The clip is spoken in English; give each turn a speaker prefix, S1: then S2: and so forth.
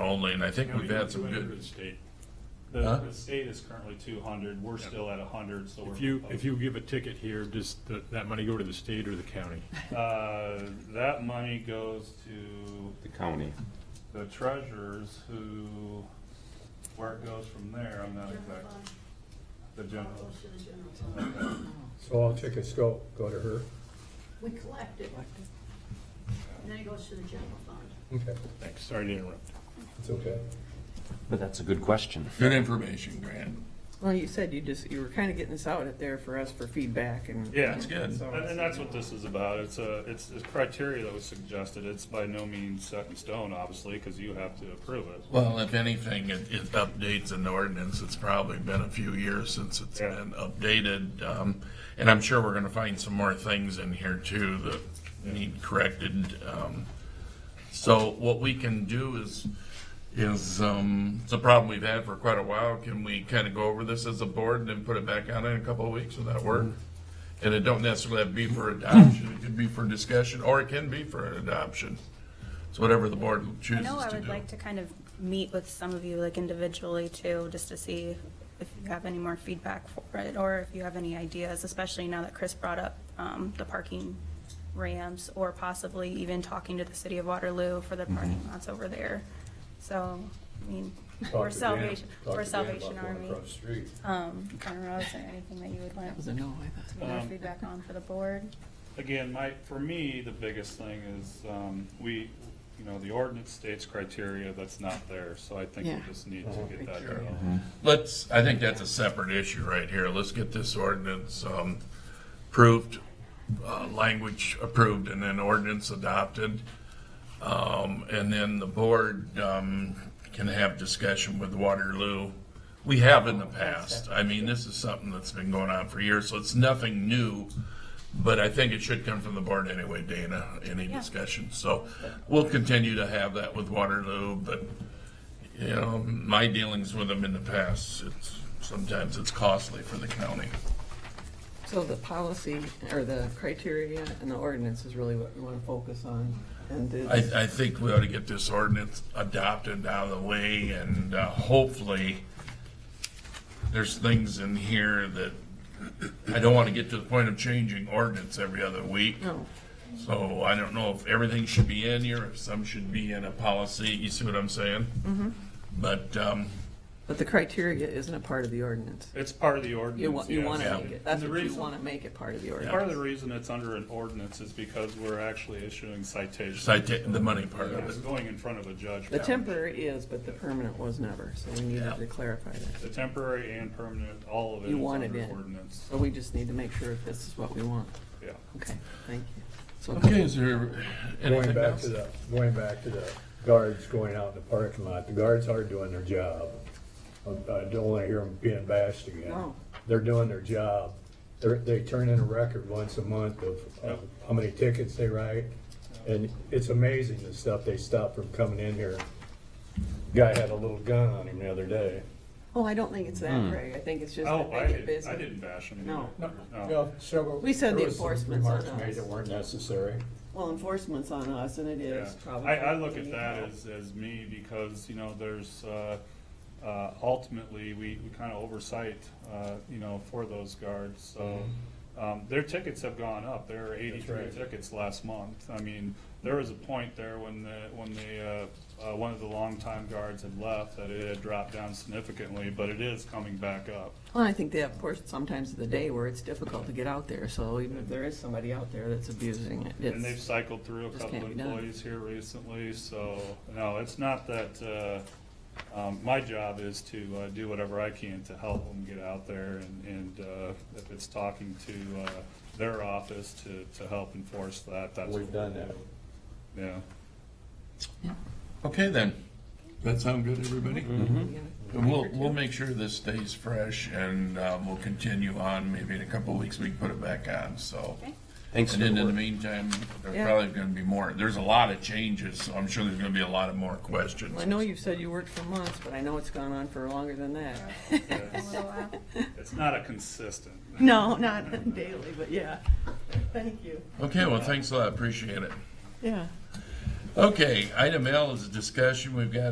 S1: only, and I think we've had some
S2: County went
S1: good.
S2: to The state.
S3: The,
S1: Huh?
S3: the state is currently two hundred, we're still at hundred, so we're.
S2: If you, if you give a ticket here, does th- that money go to the state or the county?
S3: Uh, that money goes to
S4: the county.
S3: the treasurers who, where it goes from there, I'm not exact, the
S5: General
S3: general.
S5: fund. It all goes to the general fund.
S6: So all tickets go, go to her?
S5: We collect it. And then it goes to the general fund.
S6: Okay,
S2: Thanks, sorry to interrupt.
S6: it's okay.
S4: But that's a good question.
S1: Good information, Grant.
S7: Well, you said you just, you were kind of getting this out there for us for feedback and.
S3: Yeah.
S1: That's good.
S7: So-
S3: And, and that's what this is about. It's a, it's the criteria that was suggested. It's by no means set in stone, obviously, because you have to approve it.
S1: Well, if anything, it, it updates an ordinance. It's probably been a few years since it's
S3: Yeah.
S1: been updated. Um, and I'm sure we're gonna find some more things in here too that need corrected. Um, so what we can do is, is, um, it's a problem we've had for quite a while. Can we kind of go over this as a board and then put it back out in a couple of weeks? Would that work? And it don't necessarily have to be for adoption. It could be for discussion or it can be for adoption. It's whatever the board
S8: I
S1: chooses to do.
S8: know I would like to kind of meet with some of you like individually too, just to see if you have any more feedback for it or if you have any ideas, especially now that Chris brought up um, the parking ramps or possibly even talking to the city of Waterloo for the
S6: Mm-hmm.
S8: parking lots over there. So, I mean,
S6: Talk
S8: or
S6: to Dan-
S8: Salvation,
S6: talk
S8: or
S6: to Dan about
S8: Salvation
S6: going
S8: Army.
S6: Across the street.
S8: Um, I don't know, is there anything that you would
S7: That
S8: want
S7: was a no, I thought.
S8: some more
S3: Um,
S8: feedback on for the board?
S3: Again, my, for me, the biggest thing is, um, we, you know, the ordinance states criteria that's not there, so I think
S7: Yeah.
S3: we just need to get that.
S7: Sure.
S3: done.
S1: Let's, I think that's a separate issue right here. Let's get this ordinance um, approved, uh, language approved, and then ordinance adopted. Um, And then the board um, can have discussion with Waterloo. We have in the past. I mean, this is something that's been going on for years, so it's nothing new. But I think it should come from the board anyway, Dana, any discussion. So we'll continue to have that with Waterloo, but you know, my dealings with them in the past, it's, sometimes it's costly for the county.
S7: So the policy or the criteria and the ordinance is really what we want to focus on and
S1: I,
S7: it's,
S1: I think we ought to get this ordinance adopted out of the way and uh, hopefully there's things in here that, I don't want to get to the point of changing ordinance every other week.
S7: no,
S1: So I don't know if everything should be in here, if some should be in a policy, you see what I'm saying? But, um,
S7: but the criteria isn't a part of the ordinance.
S3: It's part of the ordinance.
S7: You want, you
S3: yes.
S7: want
S1: Yeah.
S7: to make it, that's
S3: The
S7: what you
S3: reason-
S7: want to make it part of the
S3: Part of
S7: ordinance.
S3: the reason it's under an ordinance is because we're actually issuing citations.
S1: cita- the money part of
S3: It's
S1: it.
S3: going in front of a judge.
S7: The temporary is, but the permanent was never, so we
S1: Yeah.
S7: needed to clarify that.
S3: The temporary and permanent, all of it
S7: You
S3: is
S7: want it
S3: under
S7: in.
S3: ordinance,
S7: So we just need to make sure if this is what we want.
S3: yeah.
S7: Okay, thank you. So
S1: Okay, is there
S6: Going
S1: anything
S6: back
S1: else?
S6: to the, going back to the guards going out in the parking lot, the guards are doing their job. Uh, I I don't wanna hear them being bashed again.
S7: No.
S6: They're doing their job. They're, they turn in a record once a month of, of how many tickets they write. And it's amazing the stuff they stop from coming in here. Guy had a little gun on him the other day.
S7: Oh, I don't think it's that,
S1: Hmm.
S7: Ray. I think it's just
S3: Oh,
S7: that
S3: I
S7: they get
S3: didn't,
S7: busy.
S3: I didn't bash him.
S7: No.
S3: either.
S6: Well, several.
S7: We said the
S6: there was some
S7: enforcement's on
S6: Remarks made
S7: us.
S6: that weren't necessary.
S7: Well, enforcement's on us, and it
S3: Yeah.
S7: is probably.
S3: I, I look at that as, as me because, you know, there's, uh, uh, ultimately, we, we kind of oversight, uh, you know, for those guards, so. Um, their tickets have gone up. There are eighty-three
S6: right.
S3: tickets last month. I mean, there was a point there when the, when the, uh, uh, one of the longtime guards had left that it had dropped down significantly, but it is coming back up.
S7: Well, I think they have portions sometimes of the day where it's difficult to get out there, so even if there is somebody out there that's abusing it,
S3: And they've
S7: it's,
S3: cycled through a
S7: Just
S3: couple
S7: can't be done.
S3: employees here recently, so, no, it's not that, uh, um, my job is to, uh, do whatever I can to help them get out there and, and, uh, if it's talking to, uh, their office to, to help enforce that, that's.
S6: We've
S3: what
S6: done
S3: we'll
S6: that.
S3: do. Yeah.
S1: Okay, then. That sound good, everybody?
S7: Yeah.
S1: And we'll, we'll make sure this stays fresh and um, we'll continue on. Maybe in a couple of weeks, we can put it back on, so.
S8: Okay.
S4: Thanks
S1: And
S4: for
S1: then
S4: the
S1: in the
S4: work.
S1: meantime, there's
S7: Yeah.
S1: probably gonna be more. There's a lot of changes, so I'm sure there's gonna be a lot of more questions.
S7: I know you've said you worked for months, but I know it's gone on for longer than that.
S8: A
S3: It's-
S8: little while.
S3: It's not a consistent.
S7: No, not daily, but yeah. Thank you.
S1: Okay, well, thanks a lot. Appreciate it.
S7: Yeah.
S1: Okay, item L is a discussion. We've got